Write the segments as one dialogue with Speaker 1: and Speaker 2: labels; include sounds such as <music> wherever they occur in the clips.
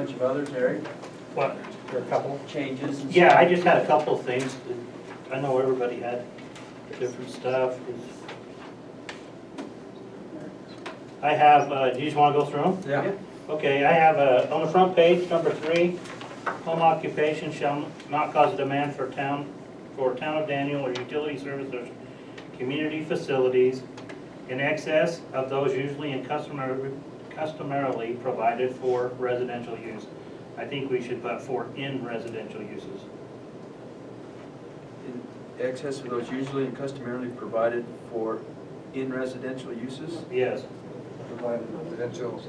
Speaker 1: bunch of others, Eric,
Speaker 2: What, there are a couple?
Speaker 1: changes and
Speaker 2: Yeah, I
Speaker 1: stuff.
Speaker 2: just had a couple of things. that- I know everybody had different stuff. I have, uh, do you just want to go through them?
Speaker 1: Yeah.
Speaker 2: Okay, I have, uh, on the front page, number three, home occupation shall not cause a demand for town, for town of Daniel or utility services, or community facilities in excess of those usually and customar- customarily provided for residential use. I think we should put for in residential uses.
Speaker 1: In excess of those usually and customarily provided for in residential uses?
Speaker 2: Yes.
Speaker 3: Provide residential.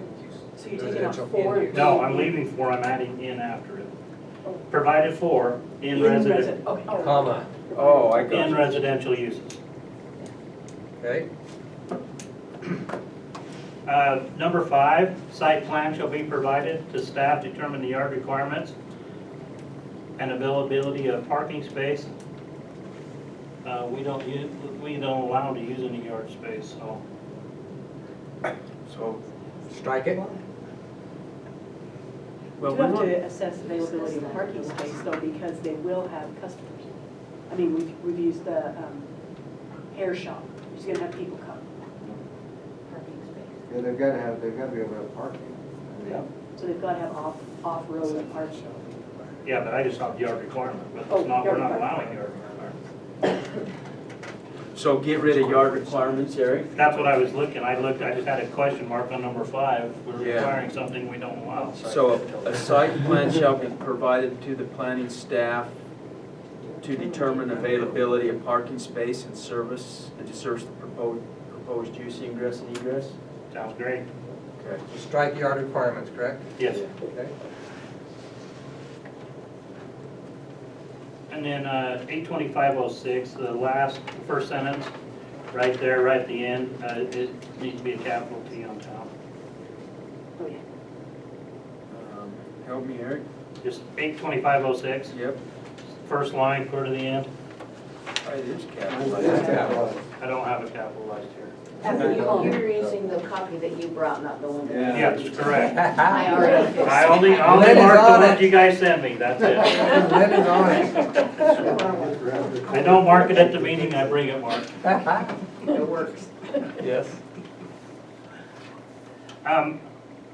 Speaker 4: So you're taking out
Speaker 3: residential
Speaker 4: four?
Speaker 3: use.
Speaker 2: No, I'm leaving for, I'm adding in after it. Provided for in resident,
Speaker 4: resi- Okay.
Speaker 3: Comma,
Speaker 1: Oh, I got
Speaker 2: in
Speaker 1: you.
Speaker 2: residential uses.
Speaker 3: okay?
Speaker 2: Uh, Number five, site plan shall be provided to staff to determine the yard requirements and availability of parking space. Uh, We don't, u- we don't allow to use any yard space, so.
Speaker 1: So,
Speaker 3: Strike it.
Speaker 4: You
Speaker 1: well, we
Speaker 4: have
Speaker 1: want,
Speaker 4: to assess availability of parking space though, because they will have customers. I mean, we've, we've used the um, hair shop, You're just gonna have people come. Parking space.
Speaker 5: Yeah, they've gotta have, they've gotta be able to have parking. I mean,
Speaker 4: So they've gotta have off, off-road parking.
Speaker 2: Yeah, but I just have yard requirement, but
Speaker 4: Oh,
Speaker 2: it's not, we're
Speaker 4: yard
Speaker 2: not allowing
Speaker 4: requirement.
Speaker 2: yard requirement.
Speaker 1: so get rid of yard requirements, Eric?
Speaker 2: That's what I was looking, I looked, I just had a question mark on number five. We're
Speaker 1: Yeah.
Speaker 2: requiring something we don't allow.
Speaker 1: So a site plan shall be provided to the planning staff to determine availability of parking space and service, and to service the proposed, proposed use ingress and egress?
Speaker 2: Sounds great.
Speaker 1: Okay.
Speaker 3: Strike yard requirements, correct?
Speaker 2: Yes.
Speaker 3: Okay.
Speaker 2: And then eight twenty-five oh six, the last, first sentence, right there, right at the end, uh, it- it needs to be a capital T on top.
Speaker 4: Oh, yeah.
Speaker 1: Um, Help me, Eric?
Speaker 2: Just eight twenty-five oh six,
Speaker 1: Yep,
Speaker 2: first line, clear to the end.
Speaker 1: Oh, it is
Speaker 5: It
Speaker 1: capitalized.
Speaker 5: is capitalized.
Speaker 2: I don't have it capitalized here.
Speaker 6: You're you're using the copy that you brought, not the one that.
Speaker 2: Yeah, that's correct.
Speaker 6: I already fixed.
Speaker 2: I only, I only
Speaker 3: Lynn is
Speaker 2: marked
Speaker 3: on
Speaker 2: the ones
Speaker 3: it.
Speaker 2: you guys sent me, that's it.
Speaker 3: <laughs> Lynn is on it.
Speaker 2: I don't mark it at the meeting, I bring it marked.
Speaker 3: <laughs>
Speaker 6: It works.
Speaker 1: Yes.
Speaker 2: Um,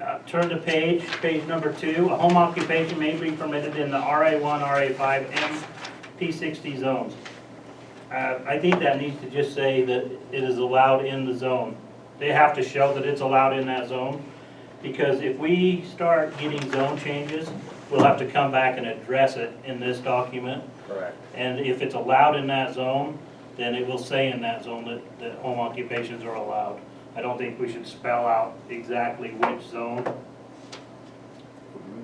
Speaker 2: uh, Turn to page, page number two, a home occupation may be permitted in the RA one, RA five, and P sixty zones. Uh, I think that needs to just say that it is allowed in the zone. They have to show that it's allowed in that zone, because if we start getting zone changes, we'll have to come back and address it in this document.
Speaker 1: Correct.
Speaker 2: And if it's allowed in that zone, then it will say in that zone that, that home occupations are allowed. I don't think we should spell out exactly which zone.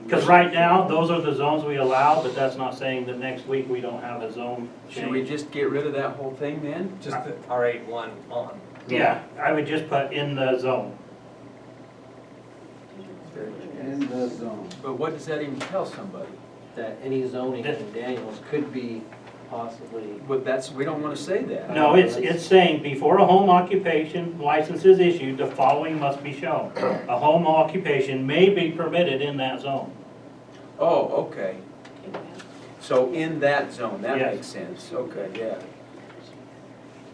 Speaker 2: Because right now, those are the zones we allow, but that's not saying that next week we don't have a zone
Speaker 1: Should we
Speaker 2: change.
Speaker 1: just get rid of that whole thing then?
Speaker 3: Just the R eight one on.
Speaker 2: Yeah, I would just put in the zone.
Speaker 5: In the zone.
Speaker 1: But what does that even tell somebody?
Speaker 7: that any zoning in Daniels could be possibly,
Speaker 1: Well, that's, we don't wanna say that.
Speaker 2: No, it's, it's saying before a home occupation license is issued, the following must be shown. A home occupation may be permitted in that zone.
Speaker 1: Oh, okay, so in that zone, that
Speaker 2: Yes.
Speaker 1: makes sense, okay, yeah.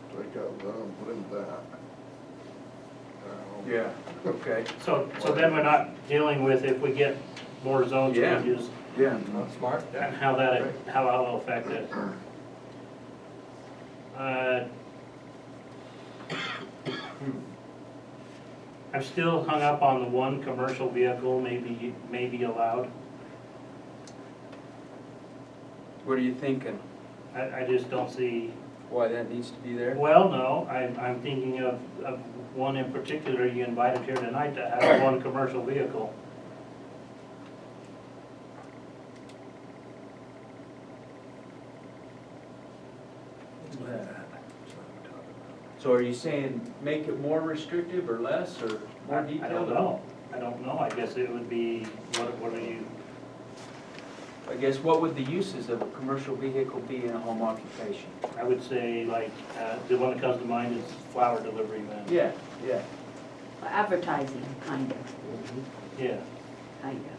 Speaker 5: Take out zone, put in that. Uh,
Speaker 1: Yeah. Okay,
Speaker 2: So, so then we're not dealing with if we get more zone
Speaker 1: Yeah.
Speaker 2: changes
Speaker 1: yeah.
Speaker 3: Not smart?
Speaker 2: and how that, how that will affect it. Uh, I'm still hung up on the one commercial vehicle may be, may be allowed.
Speaker 1: What are you thinking?
Speaker 2: I, I just don't see,
Speaker 1: Why that needs to be there?
Speaker 2: well, no, I'm, I'm thinking of, of one in particular you invited here tonight to have one commercial vehicle.
Speaker 1: So are you saying make it more restrictive or less or
Speaker 2: I
Speaker 1: more
Speaker 2: I
Speaker 1: detailed?
Speaker 2: don't know, I don't know, I guess it would be, what, what are you,
Speaker 1: I guess what would the uses of a commercial vehicle be in a home occupation?
Speaker 2: I would say like, uh, the one that comes to mind is flower delivery man.
Speaker 1: Yeah, yeah.
Speaker 6: Advertising, kind of,
Speaker 2: Yeah,
Speaker 6: kind of.